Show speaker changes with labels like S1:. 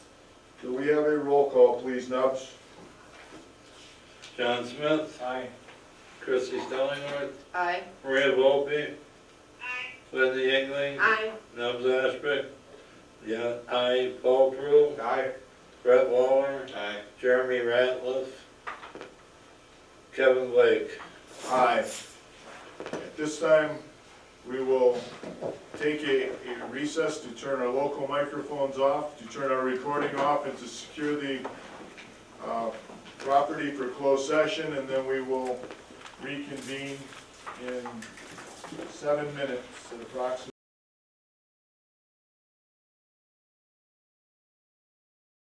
S1: we have a roll call, please, Nubs?
S2: John Smith,
S3: Aye.
S2: Christie Stellingworth,
S4: Aye.
S2: Maria Volpe. Lindsay Engling,
S4: Aye.
S2: Nubs Ashby. Yeah, I, Paul Prue,
S3: Aye.
S2: Brett Waller,
S3: Aye.
S2: Jeremy Ratliff, Kevin Blake.
S1: Aye. At this time, we will take a a recess to turn our local microphones off, to turn our recording off, and to secure the uh, property for closed session, and then we will reconvene in seven minutes approximately.